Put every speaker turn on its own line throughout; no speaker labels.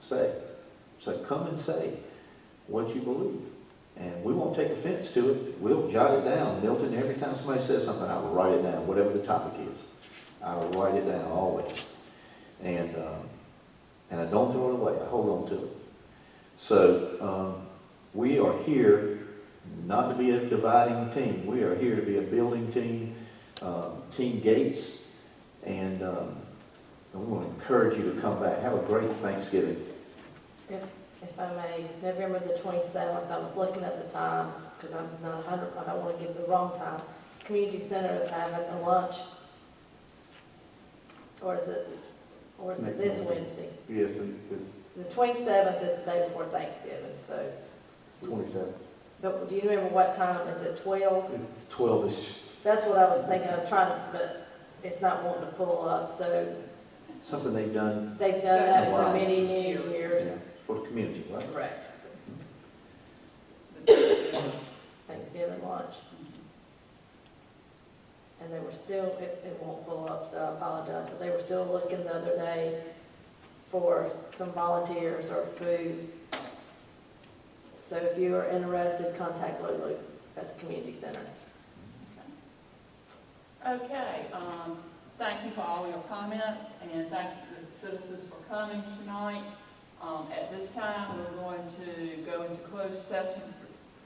say. So come and say what you believe. And we won't take offense to it. We'll jot it down. Milton, every time somebody says something, I will write it down, whatever the topic is. I will write it down always. And, um, and I don't throw it away. I hold on to it. So, um, we are here not to be a dividing team. We are here to be a building team, um, Team Gates. And, um, and we want to encourage you to come back. Have a great Thanksgiving.
If I may, November the 27th, I was looking at the time, because I'm not 100, I don't want to give the wrong time. Community Center is having a lunch. Or is it, or is it
Next
this
Monday.
Wednesday?
Yes, and it's
The 27th is the day before Thanksgiving, so,
twenty-seven.
but do you remember what time? Is it 12?
It's
Twelve-ish.
That's what I was thinking, I was trying to, but it's not wanting to pull up, so
Something they've done
they've done that
Wow.
for many, many
yeah.
years.
for the community, right?
Correct. Thanksgiving lunch. And they were still, it, it won't pull up, so I apologize, but they were still looking the other day for some volunteers or food. So if you are interested, contact Lulu at the community center.
Okay, um, thank you for all your comments, and thank you to the citizens for coming tonight. Um, at this time, we're going to go into closed session,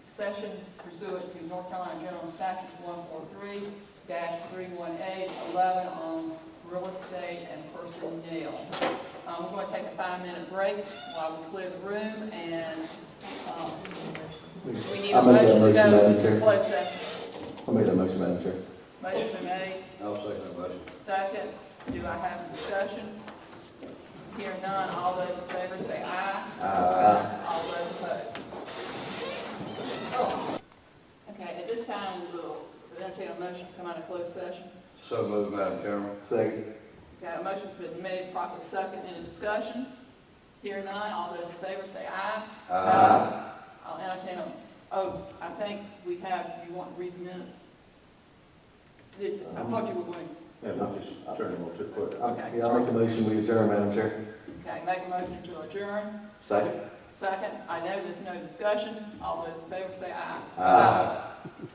session pursuant to North Carolina General Statute one four three dash three one eight eleven on real estate and personnel. Um, we're going to take a five-minute break while we clear the room, and, um, we need
I
a
make that motion,
motion to go
Madam
into
Chair.
closed session.
I'll make that motion, Madam Chair.
Motion been made,
I'll second that motion.
Second, do I have discussion? Here none, all those in favor say aye.
Aye.
All those opposed. Okay, at this time, we'll entertain a motion to come out of closed session.
So moved, Madam Chairman.
Second.
Okay, a motion's been made, properly second, any discussion? Here none, all those in favor say aye. I'll entertain them. Oh, I think we have, you want to read the minutes? Did- I thought you were going,
Yeah, I'll just turn it over to the clerk.
I- Yeah, I'll make the motion, we adjourn, Madam Chair.
okay, make a motion to adjourn.
Second?
Second, I know there's no discussion, all those in favor say aye.
Aye.